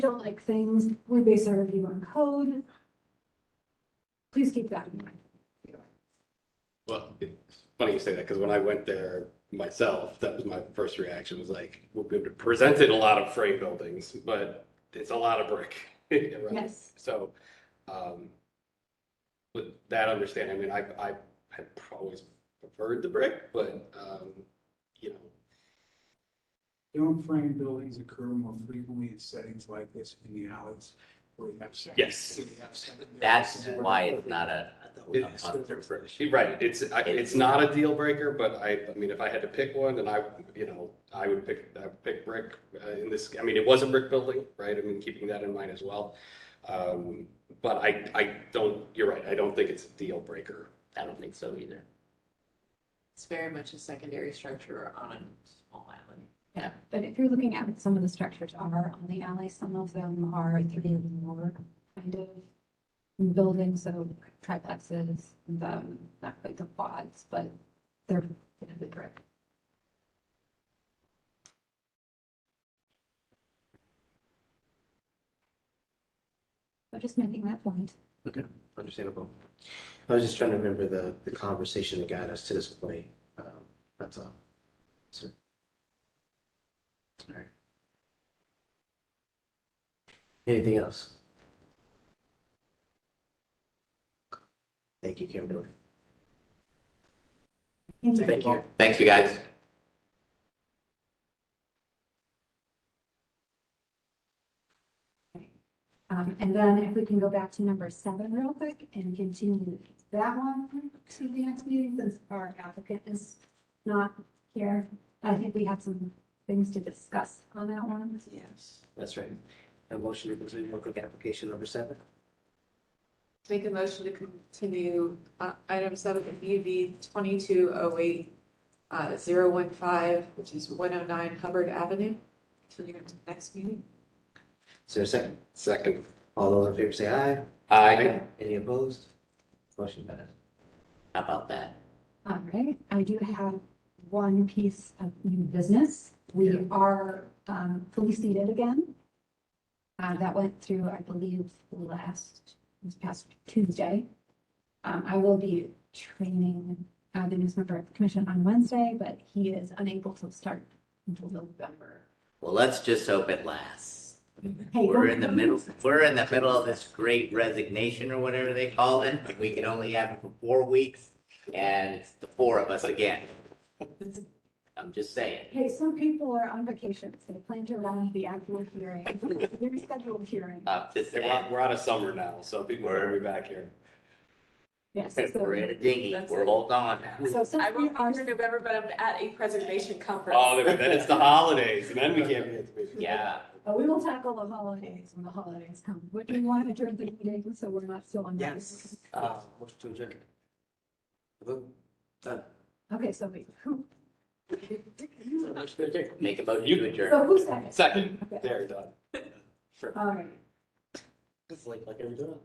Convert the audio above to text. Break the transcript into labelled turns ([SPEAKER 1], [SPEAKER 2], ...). [SPEAKER 1] don't like things, we base our review on code. Please keep that in mind.
[SPEAKER 2] Well, it's funny you say that, because when I went there myself, that was my first reaction, was like, we'll be able to present it in a lot of frame buildings, but it's a lot of brick. around.
[SPEAKER 1] Yes,
[SPEAKER 2] So, um, with that understanding, I mean, I, I had always preferred the brick, but, um, you know,
[SPEAKER 3] Don't frame buildings occur more frequently in settings like this in the alleys where you have. second-
[SPEAKER 2] Yes.
[SPEAKER 3] where you have second-
[SPEAKER 4] That's why it's not a, a
[SPEAKER 2] It's-
[SPEAKER 4] monster for
[SPEAKER 2] You're Right, it's, I- it's not a deal breaker, but I, I mean, if I had to pick one, and I, you know, I would pick, I would pick brick uh, in this, I mean, it was a brick building, right? I mean, keeping that in mind as well. Um, But I, I don't, you're right, I don't think it's a deal breaker.
[SPEAKER 4] I don't think so either.
[SPEAKER 5] It's very much a secondary structure on a small island.
[SPEAKER 1] but if you're looking at what some of the structures are on the alley, some of them are three or more kind of buildings, so triplexes, the, not quite the quads, but they're kind of the brick. So just making that point.
[SPEAKER 6] Understandable. I was just trying to remember the, the conversation that got us to this point. Um, That's all. So. All right. Anything else? Thank you, Kimberly. Thank you.
[SPEAKER 4] Thank you, guys.
[SPEAKER 1] Um, and then if we can go back to number seven real quick and continue that one to the next meeting, since our applicant is not here. I think we have some things to discuss on that one.
[SPEAKER 5] Yes.
[SPEAKER 6] That's right. A motion to continue work with application number seven.
[SPEAKER 5] Make a motion to continue uh, item seven, UV twenty-two oh eight uh, zero one five, which is one oh nine Hubbard Avenue, till you to the next meeting.
[SPEAKER 6] Is there a second?
[SPEAKER 2] Second,
[SPEAKER 6] All those in favor say aye.
[SPEAKER 4] Hi,
[SPEAKER 6] Any opposed? Motion passed.
[SPEAKER 4] how about that?
[SPEAKER 1] All right, I do have one piece of new business. We are um, fully seated again. Uh, That went through, I believe, last, this past Tuesday. Um, I will be training uh, the news member of the commission on Wednesday, but he is unable to start until November.
[SPEAKER 4] Well, let's just hope it lasts.
[SPEAKER 1] Hey,
[SPEAKER 4] We're
[SPEAKER 1] don't-
[SPEAKER 4] in the middle, we're in the middle of this great resignation or whatever they call it. We can only have it for four weeks and it's the four of us again. I'm just saying.
[SPEAKER 1] Hey, some people are on vacation, so they plan to run the actual hearing, the scheduled hearing.
[SPEAKER 4] I'm just
[SPEAKER 2] we're out
[SPEAKER 4] saying.
[SPEAKER 2] we're out of summer now, so people are gonna be back here.
[SPEAKER 1] Yes,
[SPEAKER 4] We're
[SPEAKER 1] so
[SPEAKER 4] in a dinghy. We're holding on now.
[SPEAKER 1] so since we are
[SPEAKER 5] November, but I'm at a preservation conference.
[SPEAKER 2] Oh, then it's the holidays, and then we can't be at the meeting.
[SPEAKER 4] Yeah.
[SPEAKER 1] But we will tackle the holidays when the holidays come. Would we want to adjourn the meeting so we're not still on? that?
[SPEAKER 4] Yes.
[SPEAKER 6] Uh, motion to adjourn. Vote. Done.
[SPEAKER 1] Okay, so wait, who?
[SPEAKER 6] Motion to adjourn.
[SPEAKER 4] Make a motion to adjourn.
[SPEAKER 1] So who's second?
[SPEAKER 2] Second,
[SPEAKER 1] Okay,
[SPEAKER 2] there, done.
[SPEAKER 1] All right.
[SPEAKER 6] It's like, like every time.